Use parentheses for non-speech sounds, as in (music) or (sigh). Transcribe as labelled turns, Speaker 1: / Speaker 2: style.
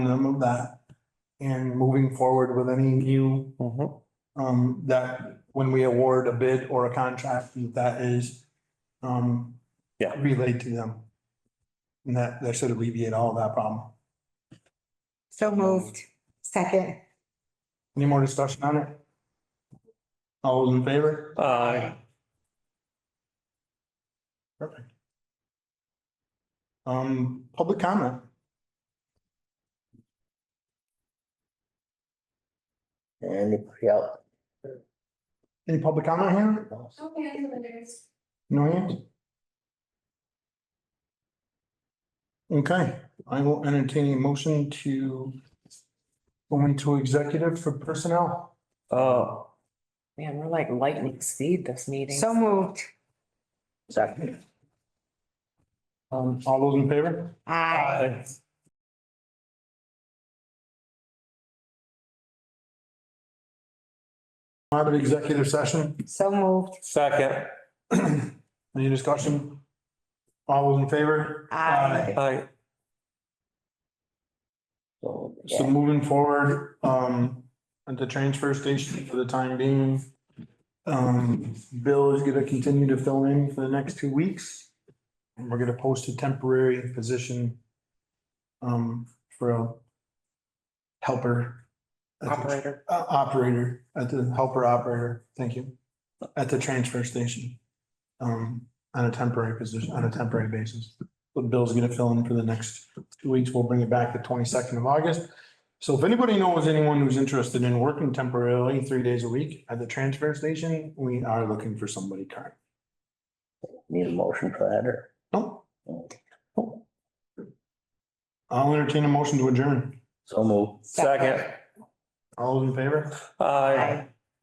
Speaker 1: them of that. And moving forward with any new,
Speaker 2: Mhm.
Speaker 1: um, that when we award a bid or a contract, that is, um,
Speaker 2: Yeah.
Speaker 1: relayed to them. And that, that should alleviate all that problem.
Speaker 3: So moved. Second.
Speaker 1: Any more discussion on it? All those in favor?
Speaker 2: Aye.
Speaker 1: Perfect. Um, public comment?
Speaker 4: Anybody else?
Speaker 1: Any public comment here?
Speaker 5: Okay, I'm gonna just-
Speaker 1: No hands? Okay, I will entertain a motion to go into executive for personnel.
Speaker 2: Uh,
Speaker 6: Man, we're like lightning speed this meeting.
Speaker 3: So moved.
Speaker 4: Second,
Speaker 1: Um, all those in favor?
Speaker 3: Aye.
Speaker 2: aye.
Speaker 1: Out of executive session, (clears throat)
Speaker 3: So moved.
Speaker 2: Second,
Speaker 1: any discussion? All those in favor?
Speaker 3: Aye.
Speaker 2: aye.
Speaker 4: so,
Speaker 1: So
Speaker 4: yeah,
Speaker 1: moving forward, um, at the transfer station for the time being, um, Bill is gonna continue to fill in for the next two weeks. And we're gonna post a temporary position, um, for a helper. at the-
Speaker 6: Operator.
Speaker 1: Uh, operator, at the helper operator, thank you, at the transfer station. Um, on a temporary position, on a temporary basis. But Bill's gonna fill in for the next two weeks. We'll bring it back the twenty-second of August. So if anybody knows anyone who's interested in working temporarily three days a week at the transfer station, we are looking for somebody current.
Speaker 4: need a motion for that or?
Speaker 1: Nope. I'll entertain a motion to adjourn.
Speaker 4: So move.
Speaker 2: Second,
Speaker 1: All those in favor?
Speaker 2: aye.